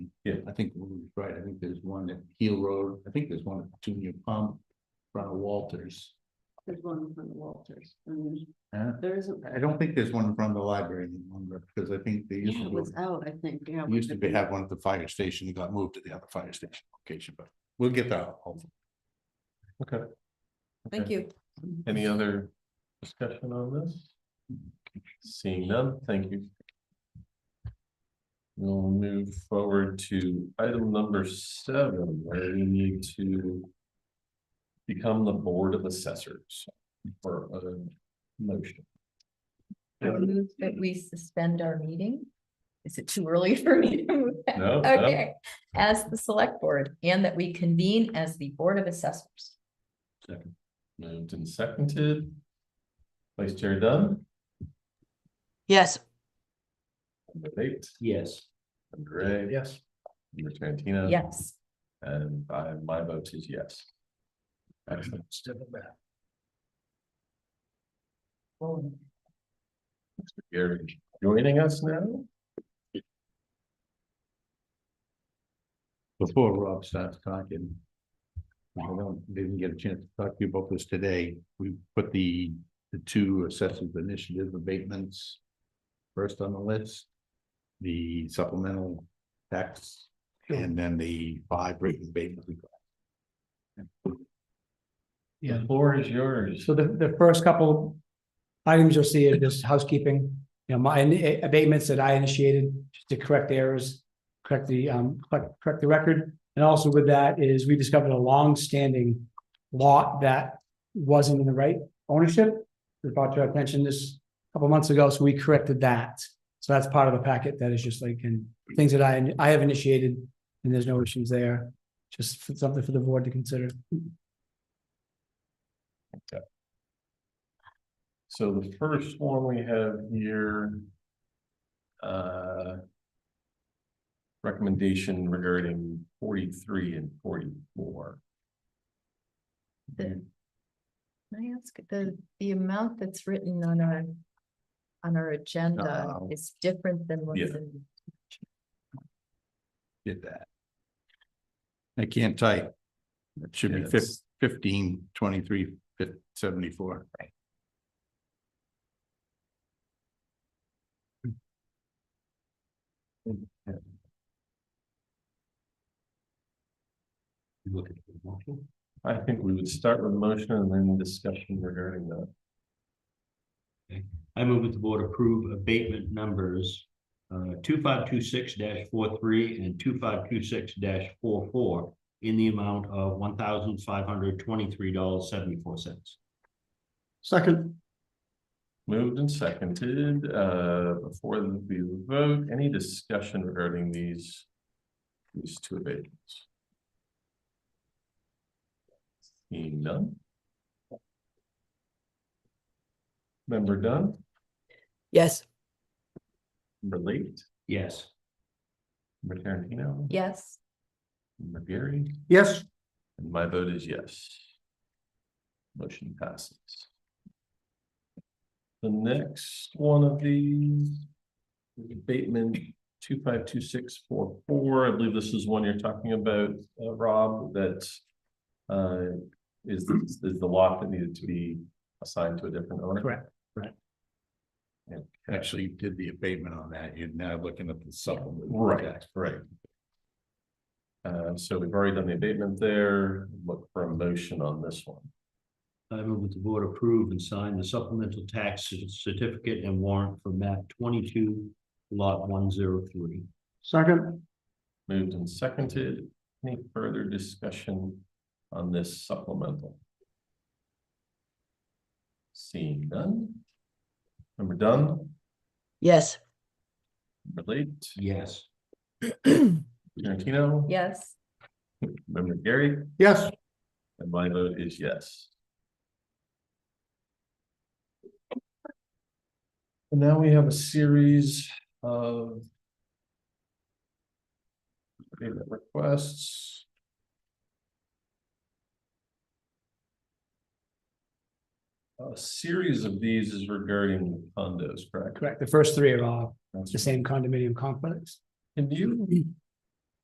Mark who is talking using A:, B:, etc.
A: I think Ruby's right, I think there's one at Heel Road, I think there's one at Junior Pump, front of Walters.
B: There's one from the Walters. and
A: Huh?
B: There isn't.
A: I don't think there's one in front of the library any longer, because I think they used
B: Yeah,
A: to,
B: it
A: go-
B: was uh, out, I think, yeah.
A: used to be have one at the fire station, it got moved to the other fire station location, but we'll get that.
C: Okay.
B: Thank you.
C: Any other discussion on this? Seeing none, thank you. We'll move forward to item number seven, where we need to. Become the Board of Assessors for a motion.
D: I move
B: Mm-hmm.
D: that
C: Mm-hmm.
D: we suspend our meeting. Is it too early for me to move that?
C: No, no.
D: Okay, as the select board and that we convene as the Board of Assessors.
C: Moved and seconded. Vice Chair Dunn,
E: Yes,
C: number eight,
A: Yes.
C: and Gray. Yes. Number Tarantino.
D: Yes,
C: And I, my vote is yes. Excellent. Mr. Gary, joining us now?
A: Before Rob starts talking. I don't, didn't get a chance to talk to you about this today, we put the, the two assessment initiative abatements. First on the list, the supplemental tax, and then the five rate abatement.
C: The
F: Yeah.
C: floor is yours.
F: So the, the first couple items you'll see are just housekeeping, you know, my in- abatements that I initiated just to correct errors, correct the, um, correct, correct the record. And also with that is we discovered a long-standing lot that wasn't in the right ownership. We brought to our attention this a couple months ago, so we corrected that. So that's part of the packet that is just like, and things that I, I have initiated and there's no issues there. Just for- something for the board to consider.
C: So the first one we have here. uh, Recommendation regarding forty-three and forty-four.
D: the. Can I ask, the, the amount that's written on our, on our agenda
A: Uh-oh.
D: is different than what's
C: Yeah.
D: in.
A: Did that. I can't type. It should be fif-
C: Yes.
A: fifteen, twenty-three, fif- seventy-four.
C: I think we would start with motion and then discussion regarding that.
G: I move that the board approve abatement numbers uh, two five two six 43 and two five two six 44 in the amount of one thousand five hundred twenty-three dollars seventy-four cents.
F: Second.
C: Moved and seconded, uh, before we vote, any discussion regarding these? These two abatements? Seeing none? Member Dunn,
E: yes,
C: member Late,
G: Yes.
C: member Tarantino?
D: Yes,
C: Member Gary,
F: Yes.
C: and my vote is yes. Motion passes. The next one of these. is Abatement two five two six four four, I believe this is one you're talking about, uh, Rob, that. Uh, is, is the lot that needed to be assigned to a different owner?
F: Correct, correct.
C: Okay.
A: Actually, you did the abatement on that, you're now looking at the supplement.
C: Right, right. Uh, so we've already done the abatement there, look for a motion on this one.
G: I move that the board approve and sign the supplemental tax cer- certificate and warrant for map twenty-two lot one zero three.
F: Second,
C: Moved and seconded. Any further discussion on this supplemental? Seeing none. Member Dunn,
E: yes.
C: member Late,
G: Yes.
C: Tarantino.
D: yes.
C: Member Gary,
F: yes.
C: and my vote is yes. And now we have a series of payment requests. A series of these is regarding condos, correct?
F: Correct. The first three are all
C: That's-
F: the same condominium complex.
C: Can you